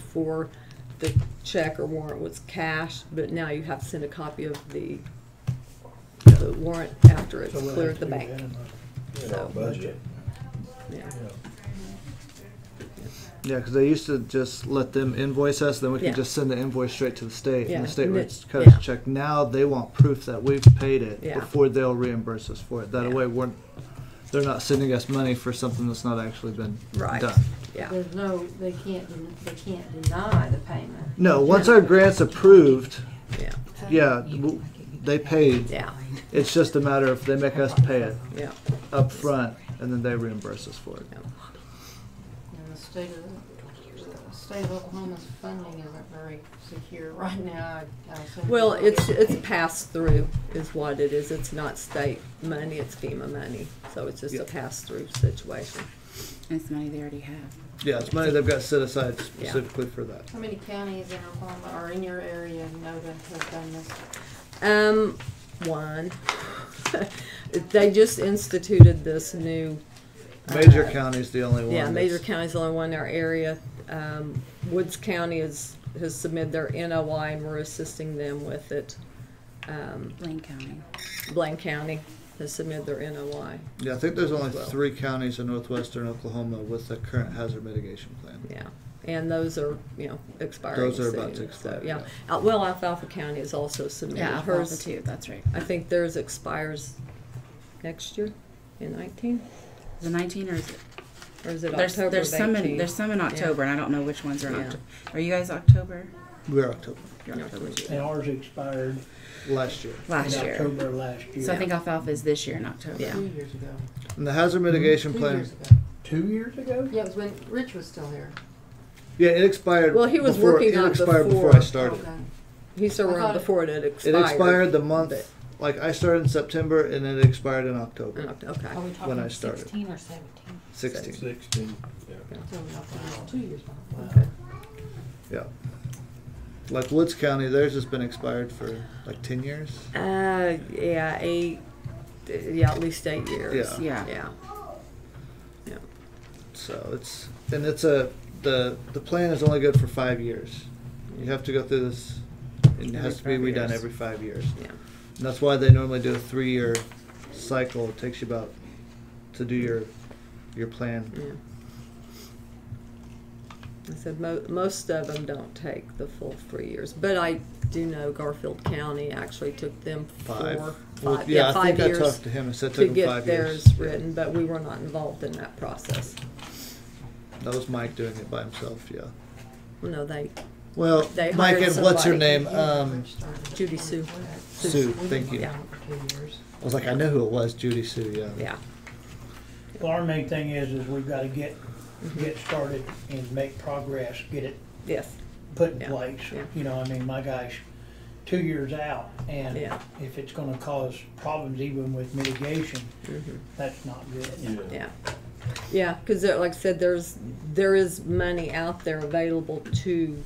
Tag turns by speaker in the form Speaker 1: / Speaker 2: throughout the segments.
Speaker 1: before the check or warrant was cashed, but now you have to send a copy of the, the warrant after it's
Speaker 2: So we'll have
Speaker 1: cleared
Speaker 2: to
Speaker 1: the
Speaker 2: do that
Speaker 1: bank,
Speaker 2: in our-
Speaker 3: in our
Speaker 1: So-
Speaker 3: budget.
Speaker 1: yeah.
Speaker 2: yeah.
Speaker 4: Yeah, because they used to just let them invoice us, then we could
Speaker 1: Yeah.
Speaker 4: just send the invoice straight to the state, and
Speaker 1: Yeah,
Speaker 4: the state
Speaker 1: and
Speaker 4: would
Speaker 1: it-
Speaker 4: cut
Speaker 1: yeah.
Speaker 4: us a check. Now they want proof that we've paid it
Speaker 1: Yeah.
Speaker 4: before they'll reimburse us for it. That
Speaker 1: Yeah.
Speaker 4: way, we're they're not sending us money for something that's not actually been
Speaker 1: Right.
Speaker 4: done.
Speaker 1: Yeah,
Speaker 5: There's no, they can't, den- they can't deny the payment.
Speaker 4: No, once
Speaker 1: Yeah.
Speaker 4: our grant's approved,
Speaker 1: yeah,
Speaker 4: yeah, w- they paid.
Speaker 1: yeah,
Speaker 4: It's just a matter of they make us pay it
Speaker 1: yeah.
Speaker 4: up front, and then they reimburse us for it.
Speaker 5: And the state of, the state of Oklahoma's funding isn't very secure right now. I- I assume-
Speaker 1: Well, it's, it's pass-through is what it is. It's not state money, it's FEMA money. So it's just a
Speaker 4: Yeah.
Speaker 1: pass-through situation.
Speaker 6: It's money they already have.
Speaker 4: Yeah, it's money they've got set aside
Speaker 1: Yeah.
Speaker 4: specifically for that.
Speaker 5: How many counties in Oklahoma or in your area know that have done this?
Speaker 1: Um, one. They just instituted this new
Speaker 4: Major
Speaker 1: Uh,
Speaker 4: county's the only one.
Speaker 1: Yeah, Major
Speaker 4: that's-
Speaker 1: County's the only one in our area. Um, Woods County is, has submitted their NOI and we're assisting them with it. Um,
Speaker 6: Blaine County.
Speaker 1: Blaine County has submitted their NOI,
Speaker 4: Yeah, I think there's only
Speaker 1: Well.
Speaker 4: three counties in northwestern Oklahoma with a current hazard mitigation plan.
Speaker 1: yeah. And those are, you know, expiring
Speaker 4: Those are about to
Speaker 1: soon, so,
Speaker 4: expire,
Speaker 1: yeah. Uh, Well, Alfalfa County has also submitted
Speaker 6: Yeah, Alfalfa
Speaker 1: hers.
Speaker 6: too, that's right.
Speaker 1: I think theirs expires next year in nineteen,
Speaker 6: Is it 19 or is it?
Speaker 1: or is it
Speaker 6: There's,
Speaker 1: October of
Speaker 6: there's, some in,
Speaker 1: 18?
Speaker 6: there's some in October, and I don't know which ones are in
Speaker 1: Yeah.
Speaker 6: October. Are you guys October?
Speaker 4: We're October,
Speaker 6: You're October too.
Speaker 2: And ours expired
Speaker 4: last year.
Speaker 2: in
Speaker 6: Last year.
Speaker 2: October last
Speaker 6: So I
Speaker 2: year.
Speaker 6: think Alfalfa is this year in October.
Speaker 1: Yeah.
Speaker 5: Two years ago.
Speaker 4: And the hazard mitigation
Speaker 5: Two
Speaker 4: plan,
Speaker 5: years ago.
Speaker 2: Two years ago?
Speaker 5: Yeah, it was when Rich was still here.
Speaker 4: yeah, it expired.
Speaker 1: Well, he was
Speaker 4: before-
Speaker 1: working on
Speaker 4: It
Speaker 1: it
Speaker 4: expired before
Speaker 1: before.
Speaker 4: I started.
Speaker 5: Okay.
Speaker 1: He still
Speaker 5: I
Speaker 1: run
Speaker 5: thought it-
Speaker 1: before it had
Speaker 4: It
Speaker 1: expired.
Speaker 4: expired the month, like I started in September and it expired in October,
Speaker 1: Oh, Okay.
Speaker 7: Are we
Speaker 4: When I
Speaker 7: talking
Speaker 4: started.
Speaker 7: sixteen or seventeen?
Speaker 4: sixteen.
Speaker 3: Sixteen, yeah.
Speaker 5: So we also- Two years behind.
Speaker 1: Okay.
Speaker 4: Yeah. Like Woods County, theirs has been expired for like ten years.
Speaker 1: Uh, yeah, eight, yeah, at least eight years.
Speaker 4: Yeah.
Speaker 6: Yeah.
Speaker 1: Yeah.
Speaker 4: So it's and it's a the the plan is only good for five years. You have to go through this. It
Speaker 6: Every
Speaker 4: has to be
Speaker 6: five
Speaker 4: redone
Speaker 6: years.
Speaker 4: every five years.
Speaker 1: Yeah.
Speaker 4: And that's why they normally do a three-year cycle. It takes you about to do your your plan.
Speaker 1: yeah. I said mo- most of them don't take the full three years, but I do know Garfield County actually took them
Speaker 4: Five.
Speaker 1: four, five,
Speaker 4: Well,
Speaker 1: yeah,
Speaker 4: I
Speaker 1: five
Speaker 4: think I
Speaker 1: years
Speaker 4: talked to him and said it
Speaker 1: to
Speaker 4: took him
Speaker 1: get
Speaker 4: five
Speaker 1: theirs
Speaker 4: years.
Speaker 1: written, but we were not involved in that process.
Speaker 4: That was Mike doing it by himself. Yeah.
Speaker 1: No, they
Speaker 4: Well,
Speaker 1: They
Speaker 4: Mike
Speaker 1: hired
Speaker 4: and what's her
Speaker 1: somebody.
Speaker 4: name? Um,
Speaker 5: Rich started it.
Speaker 1: Judy Sue.
Speaker 4: Sue. Thank you.
Speaker 1: Yeah.
Speaker 5: For two years.
Speaker 4: I was like, I know who it was. Judy Sue. Yeah.
Speaker 1: yeah
Speaker 2: Well, our main thing is, is we've gotta get,
Speaker 1: Mm-hmm.
Speaker 2: get started and make progress, get it
Speaker 1: yes
Speaker 2: put in
Speaker 1: Yeah,
Speaker 2: place.
Speaker 1: yeah.
Speaker 2: You know, I mean, my gosh, two years out, and
Speaker 1: Yeah.
Speaker 2: if it's gonna cause problems even with mitigation,
Speaker 1: mm-hmm.
Speaker 2: that's not good.
Speaker 1: Yeah, yeah, because like I said, there's, there is money out there available to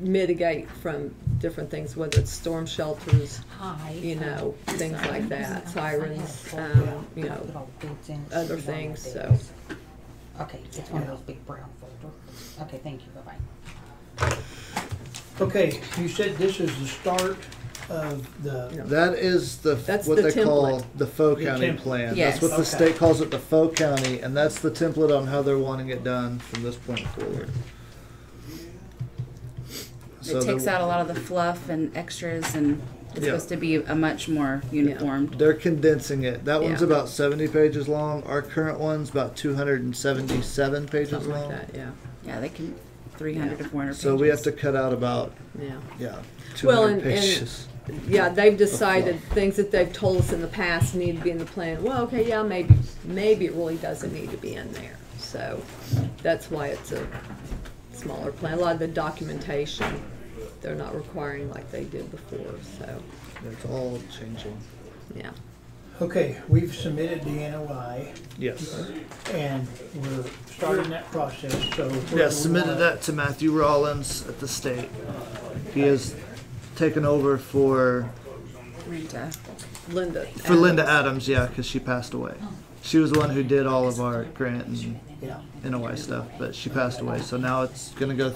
Speaker 1: mitigate from different things, whether it's storm shelters,
Speaker 7: Hi.
Speaker 1: you know, things like that, sirens, um, you know, other things, so.
Speaker 7: Okay, it's one of those big brown folder. Okay, thank you, bye-bye.
Speaker 2: Okay, you said this is the start of the,
Speaker 1: Yeah.
Speaker 4: That is the
Speaker 1: That's
Speaker 4: what
Speaker 1: the
Speaker 4: they call
Speaker 1: template.
Speaker 4: the faux
Speaker 2: The
Speaker 4: county
Speaker 2: template.
Speaker 4: plan.
Speaker 6: Yes.
Speaker 4: That's what the
Speaker 2: Okay.
Speaker 4: state calls it, the faux county, and that's the template on how they're wanting it done from this point forward. So
Speaker 6: it takes
Speaker 4: there-
Speaker 6: out a lot of the fluff and extras, and it's
Speaker 4: Yeah.
Speaker 6: supposed to be a much more uniformed.
Speaker 4: They're condensing it. That one's
Speaker 1: Yeah.
Speaker 4: about seventy pages long. Our current one's about two hundred and seventy-seven pages
Speaker 1: Something like
Speaker 4: long.
Speaker 1: that, yeah,
Speaker 6: Yeah, they can 300 to 400
Speaker 4: So
Speaker 6: pages.
Speaker 4: we have to cut out about
Speaker 1: yeah.
Speaker 4: yeah two
Speaker 1: Well, and-
Speaker 4: hundred
Speaker 1: and-
Speaker 4: pages.
Speaker 1: Yeah, they've decided things that they've told us in the past need to be in the plan. Well, okay, yeah, maybe, maybe it really doesn't need to be in there. So that's why it's a smaller plan. A lot of the documentation, they're not requiring like they did before, so,
Speaker 4: It's all changing.
Speaker 1: yeah.
Speaker 2: okay, we've submitted the NOI,
Speaker 4: Yes.
Speaker 2: and we're starting that process, so. we're
Speaker 4: Yeah,
Speaker 2: gonna
Speaker 4: submitted
Speaker 2: wanna-
Speaker 4: that to Matthew Rollins at the state. He has taken over for
Speaker 6: Rita.
Speaker 1: Linda.
Speaker 4: for Linda Adams, yeah, because she passed away. she was the one who did all of our grant and
Speaker 2: Yeah.
Speaker 4: NOI stuff, but she passed away, so now it's gonna go